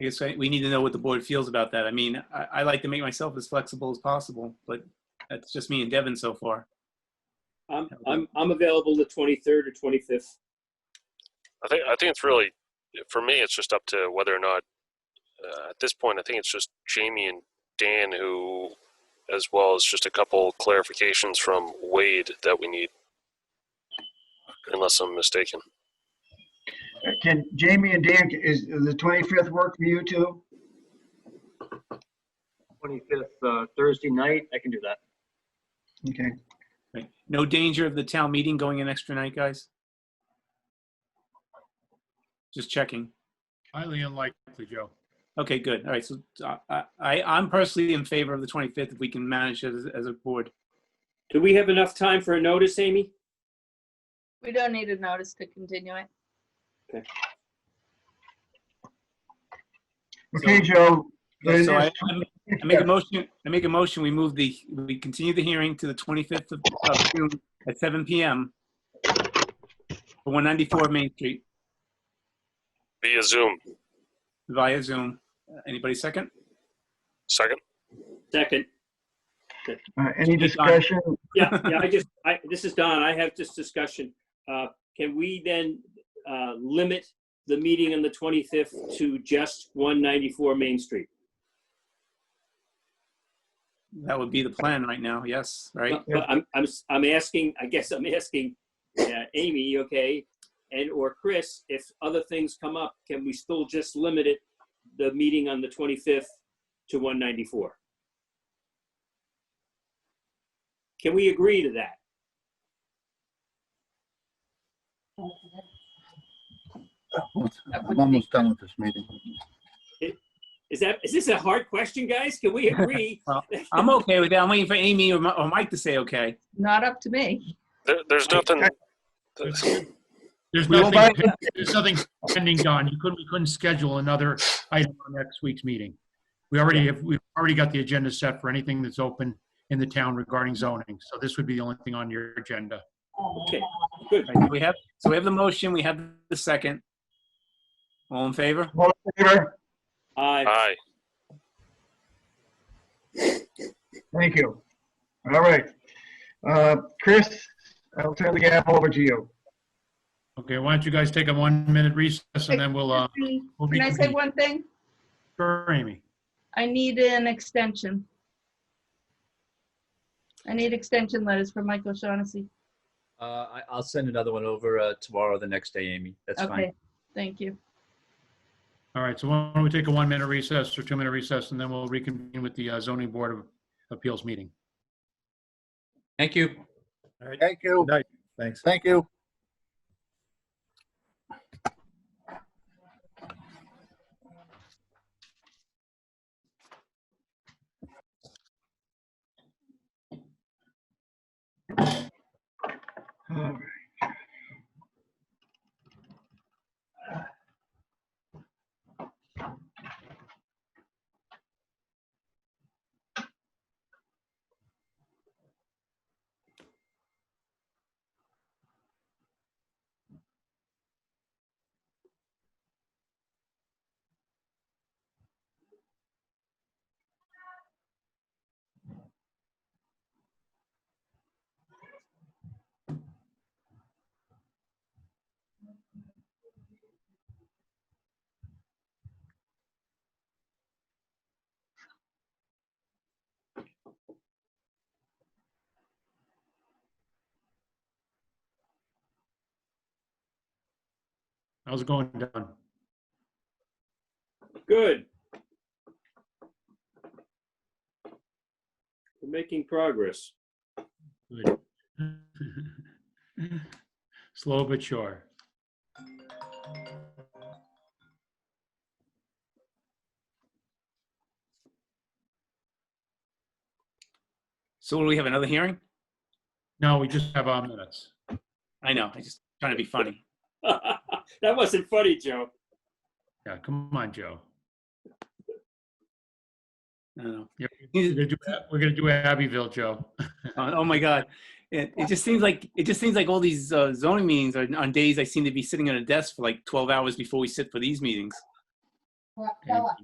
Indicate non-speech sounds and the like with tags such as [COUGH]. I guess I- we need to know what the board feels about that. I mean, I, I like to make myself as flexible as possible, but that's just me and Devin so far. I'm, I'm, I'm available the 23rd or 25th. I think I think it's really for me. It's just up to whether or not uh, at this point. I think it's just Jamie and Dan who, as well as just a couple clarifications from Wade that we need, unless I'm mistaken. Can Jamie and Dan, is the 25th work for you two? 25th, uh, Thursday night, I can do that. Okay, Right. No danger of the town meeting going an extra night, guys? Just checking. Highly unlikely, Joe. Okay, good. All right, so uh, I, I- I'm personally in favor of the 25th if we can manage it as, as a board. Do we have enough time for a notice, Amy? We don't need a notice to continue it. okay, Joe. Uh, then So I, it's I make a motion, I make a motion, we move the, we continue the hearing to the 25th of of June at 7 PM. for 194 Main Street Via Zoom. via Zoom. Uh, Anybody second? Second. Second. Uh, Any discussion? Yeah, yeah, I just, I, this is Don, I have this discussion. Uh, Can we then uh, limit the meeting on the 25th to just 194 Main Street? That would be the plan right now, yes, right? But but I'm, I'm, s- I'm asking, I guess I'm [LAUGHS] asking uh, Amy, okay, and or Chris, if other things come up, can we still just limit it, the meeting on the 25th to 194? Can we agree to that? I'm almost done with this meeting. Is that, is this a hard question, guys? Can we agree? I'm okay with that. I'm waiting for Amy or Mi- or Mike to say okay. Not up to me. There, there's nothing. There's We won't nothing, there's nothing pending, Don. You couldn't, we couldn't schedule another item on next week's meeting. We already have, we've already got the agenda set for anything that's open in the town regarding zoning. So this would be the only thing on your agenda. Okay, good. Right, We have, so we have the motion, we have the second. All in favor? All in favor? Uh, Aye. Thank you. All right. Uh, Chris, I'll turn the gavel over to you. Okay, why don't you guys take a one-minute recess and then we'll, uh, Can we'll be. I say one thing? Sure, Amy. I need an extension. I need extension letters for Michael Shaughnessy. Uh, I, I'll send another one over uh, tomorrow or the next day, Amy. That's Okay, fine. thank you. All right, so why don't we take a one-minute recess or two-minute recess and then we'll reconvene with the uh, zoning board of appeals meeting. Thank you. Thank you. Good night. Thanks. Thank you. All How's it going, Don? Good. We're making progress. [LAUGHS] Good. [LAUGHS] Slow but sure. So will we have another hearing? No, we just have our minutes. I know, I'm just trying to be funny. That wasn't funny, Joe. Yeah, come on, Joe. I don't know. Yep. We're It- gonna do, we're gonna do Abbeville, Joe. Uh, [LAUGHS] oh my god it, it just seems like it just seems like all these uh, zoning meetings are, on days i seem to be sitting at a desk for like 12 hours before we sit for these meetings Okay.